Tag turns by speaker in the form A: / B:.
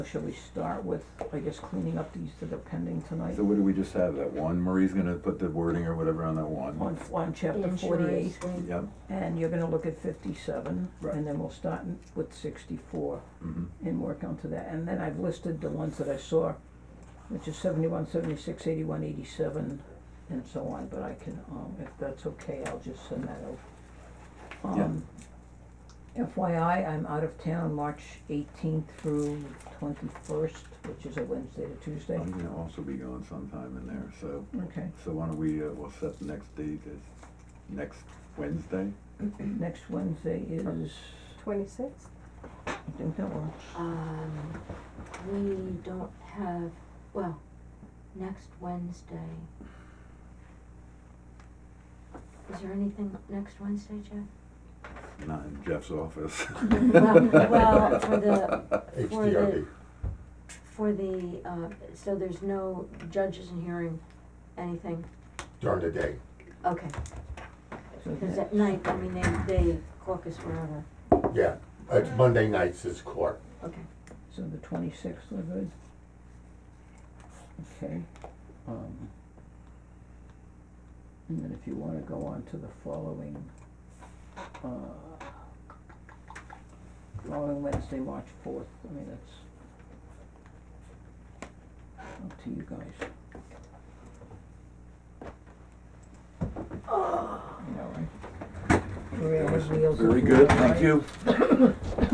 A: Should we start with, I guess, cleaning up these that are pending tonight?
B: So what do we just have, that one, Marie's gonna put the wording or whatever on that one?
A: On, on chapter
C: Insurance
A: forty-eight,
C: thing.
B: Yep,
A: and you're gonna look at fifty-seven,
B: Right.
A: and then we'll start in- with sixty-four
B: mhm,
A: and work onto that. And then I've listed the ones that I saw, which is seventy-one, seventy-six, eighty-one, eighty-seven, and so on, but I can, um, if that's okay, I'll just send that out.
B: Yeah.
A: Um, FYI, I'm out of town March eighteenth through twenty-first, which is a Wednesday to Tuesday.
B: I'm gonna also be gone sometime in there, so,
A: Okay,
B: so why don't we, uh, we'll set the next date as next Wednesday?
A: next Wednesday is,
C: Twenty-sixth?
A: I think that works.
D: Um, we don't have, well, next Wednesday. Is there anything next Wednesday, Jeff?
B: Not in Jeff's office.
D: Well, well, for the, for the,
E: HDRB.
D: for the, uh, so there's no judges in hearing anything?
E: during the day.
D: Okay,
A: So
D: cause
A: that's-
D: at night, I mean, they, they caucus wherever,
E: Yeah, it's Monday nights is court.
D: okay.
A: So the twenty-sixth are good? Okay, um. And then if you wanna go on to the following, uh, following Wednesday, March fourth, I mean, that's up to you guys. You know, right? Maria has wheels.
B: Very
A: up,
B: good,
A: right?
B: thank you.